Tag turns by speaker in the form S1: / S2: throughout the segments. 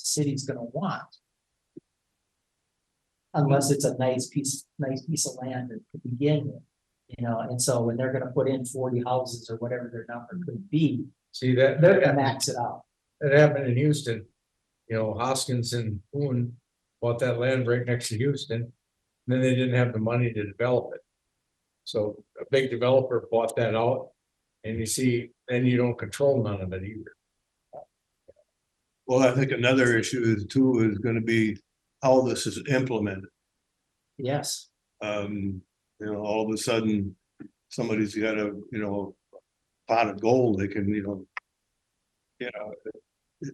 S1: city's gonna want. Unless it's a nice piece, nice piece of land to begin with, you know, and so when they're gonna put in forty houses or whatever their number could be,
S2: See, that,
S1: they're
S2: that,
S1: gonna
S2: happened-
S1: max it out.
S2: that happened in Houston. You know, Hoskins and Boone bought that land right next to Houston. and Then they didn't have the money to develop it. So a big developer bought that out. And you see, then you don't control none of it either.
S3: Well, I think another issue is too is gonna be how this is implemented.
S1: Yes,
S3: Um, you know, all of a sudden, somebody's got a, you know, pot of gold, they can, you know. You know,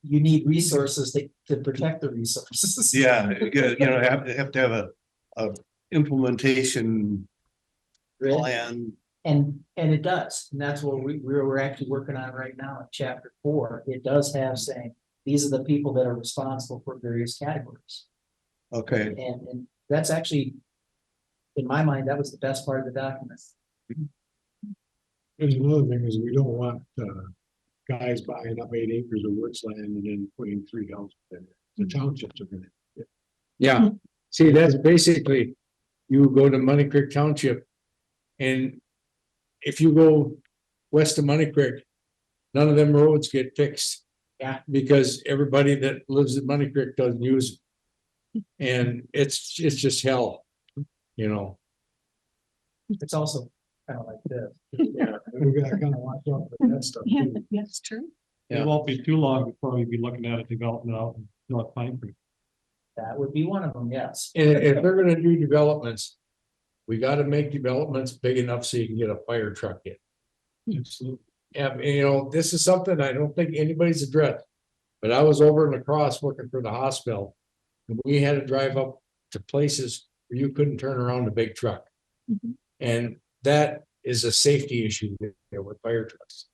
S1: you need resources that to protect the resources.
S3: yeah, you gotta- you know, have to have to have a, a implementation
S1: Really.
S3: plan.
S1: And, and it does, and that's what we, we're, we're actually working on right now in chapter four, it does have saying, these are the people that are responsible for various categories.
S3: Okay,
S1: And, and that's actually, in my mind, that was the best part of the document.
S4: Mm-hmm.
S5: There's another thing is we don't want, uh, guys buying up eight acres of woods land and then putting three houses in it. The townships are gonna.
S2: Mm-hmm. Yeah, see, that's basically, you go to Money Creek Township. And if you go west of Money Creek, none of them roads get fixed.
S1: Yeah.
S2: Because everybody that lives at Money Creek doesn't use. it. And it's, it's just hell, you know,
S1: It's also kind of like this.
S5: We gotta kind of watch out for that stuff.
S4: Yeah,
S5: too.
S4: that's true.
S2: Yeah.
S6: It won't be too long before we'll be looking at a development out in North Pine Creek.
S1: That would be one of them, yes.
S2: and if they're gonna do developments. We gotta make developments big enough so you can get a fire truck in.
S5: Absolutely.
S2: And, you know, this is something I don't think anybody's addressed. But I was over in lacrosse working for the hospital. And we had to drive up to places where you couldn't turn around a big truck.
S4: Mhm.
S2: And that is a safety issue there with fire trucks.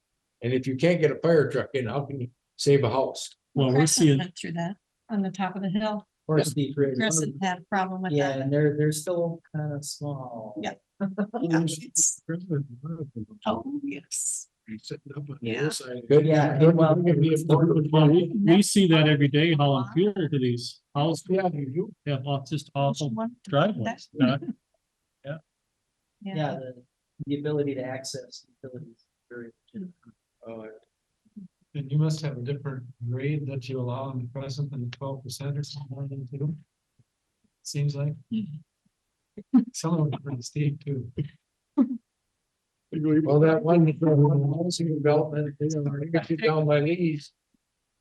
S2: And if you can't get a fire truck in, how can you save a house?
S6: Well, we're
S4: Crescent
S6: seeing,
S4: went through that on the top of the hill.
S1: Or Steve Ray-
S4: Crescent had a problem with
S1: Yeah,
S4: that.
S1: and they're, they're still kind of small.
S4: Yeah. Oh, yes.
S5: Be sitting up on the
S4: Yeah.
S5: hillside.
S2: Good,
S1: Yeah,
S2: good-
S1: well-
S2: good idea for-
S6: well, we, we see that every day, how inferior to these houses,
S2: Yeah, you do.
S6: they have all- just
S4: Which
S6: awful
S4: one?
S6: driveways.
S4: That-
S1: Yeah,
S4: Yeah,
S1: the, the ability to access utilities. is very legitimate.
S3: uh,
S6: And you must have a different grade that you allow in the present than twelve percent or something like that too. Seems like. Some of them are pretty steep too.
S2: Well, that one, that one housing development, you know, they got you down by these.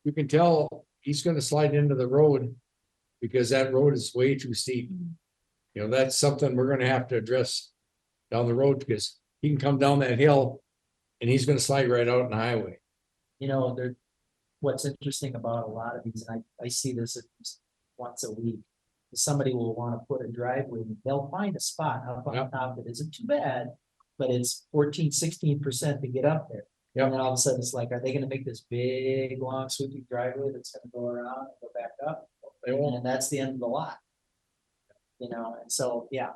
S2: You can tell he's gonna slide into the road. Because that road is way too steep. You know, that's something we're gonna have to address. Down the road, because he can come down that hill. And he's gonna slide right out on the highway.
S1: You know, there, what's interesting about a lot of these, and I, I see this at least once a week. Somebody will want to put a driveway, and they'll find a spot up
S2: Yeah.
S1: on top that isn't too bad, but it's 14, 16 percent to get up there.
S2: Yeah.
S1: And then all of a sudden, it's like, are they gonna make this big, long sweeping driveway that's gonna go around and go back up?
S2: They won't.
S1: And that's the end of the lot. You know, and so, yeah,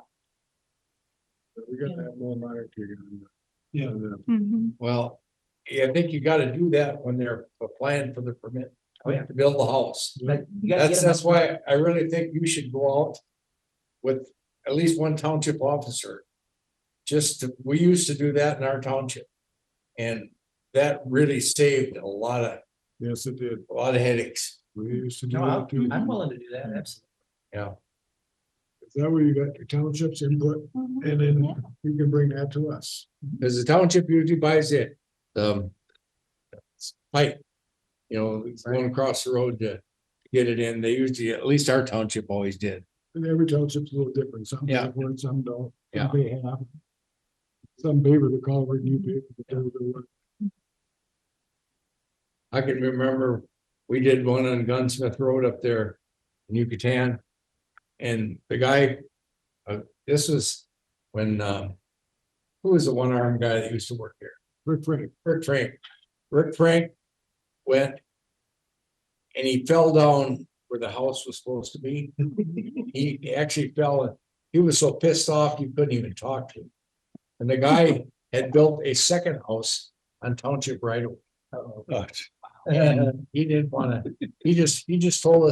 S5: We gotta have more monitoring on the.
S6: Yeah.
S5: on the-
S4: Mhm.
S2: Well, yeah, I think you gotta do that when they're applying for the permit.
S1: Oh, yeah.
S2: To build the house.
S1: but you gotta
S2: That's,
S1: get 'em
S2: that's
S1: up-
S2: why I really think you should go out with at least one township officer. Just, to- we used to do that in our township. And that really saved a lot of,
S5: Yes, it did.
S2: a lot of headaches,
S5: We used to do
S1: No,
S5: that too.
S1: I'm, I'm willing to do that, absolutely.
S2: yeah.
S5: Is that where you got your townships input?
S4: Mhm.
S5: And
S4: Yeah.
S5: then you can bring that to us.
S2: Because the township usually buys it, um. Pipe, you know, going across the road to get it in. They usually, at least our township always did.
S5: And every township's a little different, some
S2: Yeah.
S5: have one, some don't,
S2: Yeah.
S5: some they have. Some paper the culvert, new paper the culvert.
S2: I can remember, we did one on Gunsmith Road up there in Yucatan. And the guy, uh, this was when, um. Who was the one armed guy that used to work here?
S5: Rick Frank,
S2: Rick Frank. Rick Frank went. And he fell down where the house was supposed to be. He actually fell, and he was so pissed off, you couldn't even talk to him. And the guy had built a second house on Township right away.
S1: Uh-oh.
S2: And he didn't wanna, he just, he just told us.